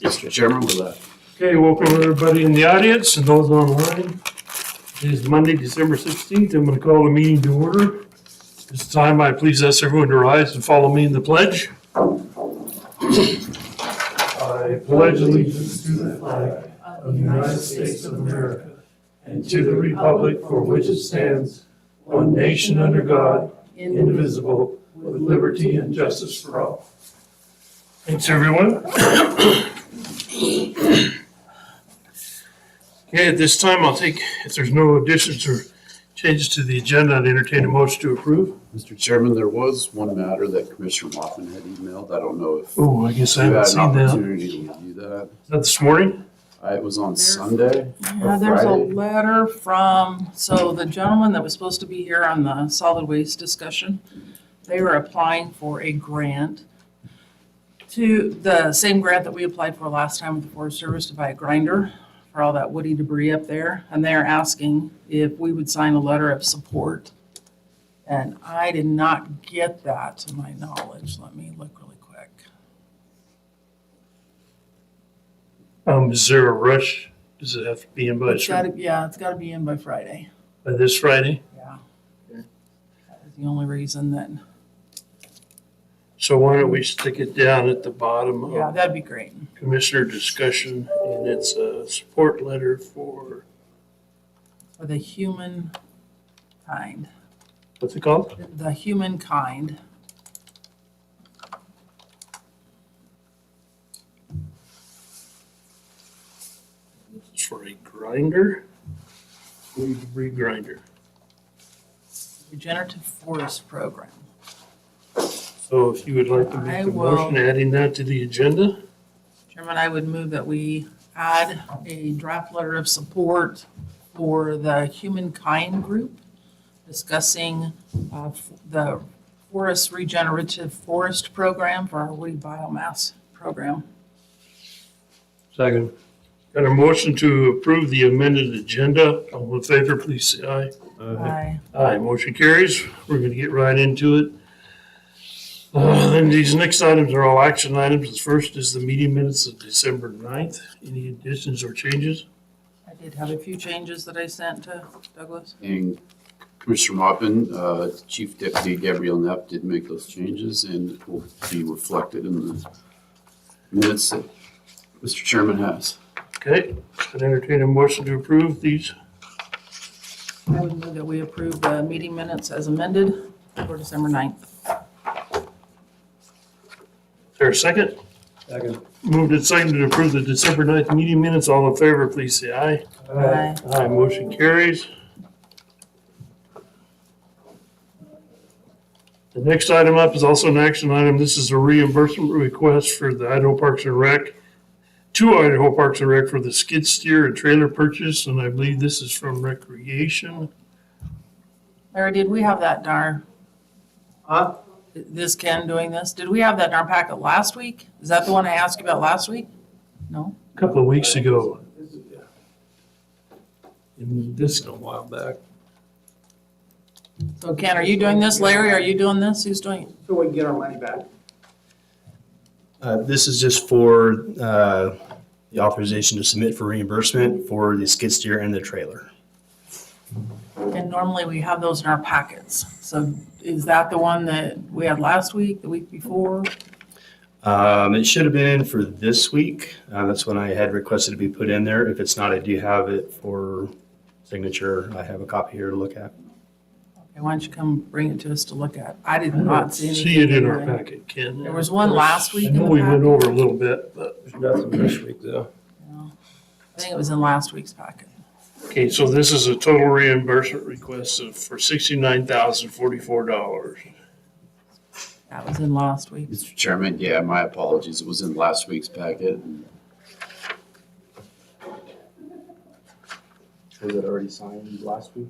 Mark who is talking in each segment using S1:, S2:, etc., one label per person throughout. S1: Mr. Chairman, uh, with that.
S2: Okay, welcome everybody in the audience and those online. It is Monday, December 16th. I'm going to call the meeting to order. This time I please ask everyone to rise and follow me in the pledge. I pledge allegiance to the flag of the United States of America and to the republic for which it stands, one nation under God, indivisible, with liberty and justice for all. Thanks, everyone. Okay, at this time, I'll take, if there's no additions or changes to the agenda, I'd entertain a motion to approve.
S1: Mr. Chairman, there was one matter that Commissioner Waffen had emailed. I don't know if you
S2: Oh, I guess I
S1: had an
S2: haven't seen that.
S1: opportunity to review that.
S2: Is that this morning?
S1: Uh, It was on Sunday.
S3: Yeah, there's a
S1: Friday.
S3: letter from, so the gentleman that was supposed to be here on the solid waste discussion, they were applying for a grant to, the same grant that we applied for last time with the Forest Service to buy a grinder for all that woody debris up there. And they're asking if we would sign a letter of support. And I did not get that to my knowledge. Let me look really quick.
S2: Um, is there a rush? Does it have to be in by,
S3: It's gotta, yeah, it's gotta be in by Friday.
S2: by this Friday?
S3: Yeah. That was the only reason that,
S2: So why don't we stick it down at the bottom
S3: yeah,
S2: of
S3: that'd be great.
S2: Commissioner discussion? And it's a support letter for,
S3: for the human kind,
S2: what's it called?
S3: the humankind.
S2: It's for a grinder? Weed debris grinder.
S3: regenerative forest program.
S2: So if you would like to
S3: I
S2: make a
S3: will-
S2: motion adding that to the agenda?
S3: Chairman, I would move that we add a draft letter of support for the humankind group discussing uh, f- the forest regenerative forest program for our woody biomass program.
S2: Second. Got a motion to approve the amended agenda. All in favor, please say aye.
S3: Aye.
S2: Aye, motion carries. We're gonna get right into it. Uh, and these next items are all action items. The first is the meeting minutes of December 9th. Any additions or changes?
S3: I did have a few changes that I sent to Douglas.
S1: And Commissioner Waffen, uh, Chief Deputy Gabrielle Neff did make those changes and it will be reflected in the minutes that Mr. Chairman has.
S2: Okay, I'd entertain a motion to approve these.
S3: I would move that we approve the meeting minutes as amended for December 9th.
S2: Is there a second?
S4: Second.
S2: Moved and seconded to approve the December 9th meeting minutes. All in favor, please say aye.
S3: Aye.
S2: Aye, motion carries. The next item up is also an action item. This is a reimbursement request for the Idaho Parks and Rec, to Idaho Parks and Rec for the skid steer and trailer purchase, and I believe this is from Recreation.
S3: Larry, did we have that in our,
S4: Huh?
S3: this Ken doing this, did we have that in our packet last week? Is that the one I asked you about last week? No?
S2: A Couple of weeks ago. And this,
S4: A while back.
S3: So Ken, are you doing this? Larry, are you doing this? Who's doing it?
S5: So we can get our money back.
S4: Uh, This is just for uh, the authorization to submit for reimbursement for the skid steer and the trailer.
S3: And normally we have those in our packets. So is that the one that we had last week, the week before?
S4: Um, It should have been in for this week. Uh, That's when I had requested to be put in there. If it's not, I do have it for signature. I have a copy here to look at.
S3: Okay, Why don't you come bring it to us to look at? I did not see anything.
S2: see it in our
S3: there.
S2: packet, Ken.
S3: There was one last week
S2: I
S3: in
S2: know
S3: the
S2: we went
S3: packet.
S2: over a little bit, but.
S4: Nothing this week, though.
S3: I think it was in last week's packet.
S2: Okay, so this is a total reimbursement request of, for sixty-nine thousand forty-four dollars.
S3: That was in last week.
S1: Mr. Chairman, yeah, my apologies. It was in last week's packet.
S4: Was it already signed last week?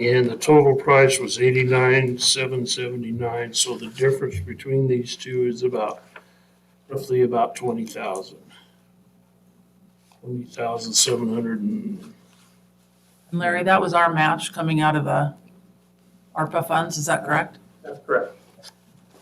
S2: And the total price was eighty-nine, seven seventy-nine, so the difference between these two is about, roughly about twenty thousand. Twenty thousand seven hundred and,
S3: And Larry, that was our match coming out of the uh, ARPA funds, is that correct?
S5: That's correct.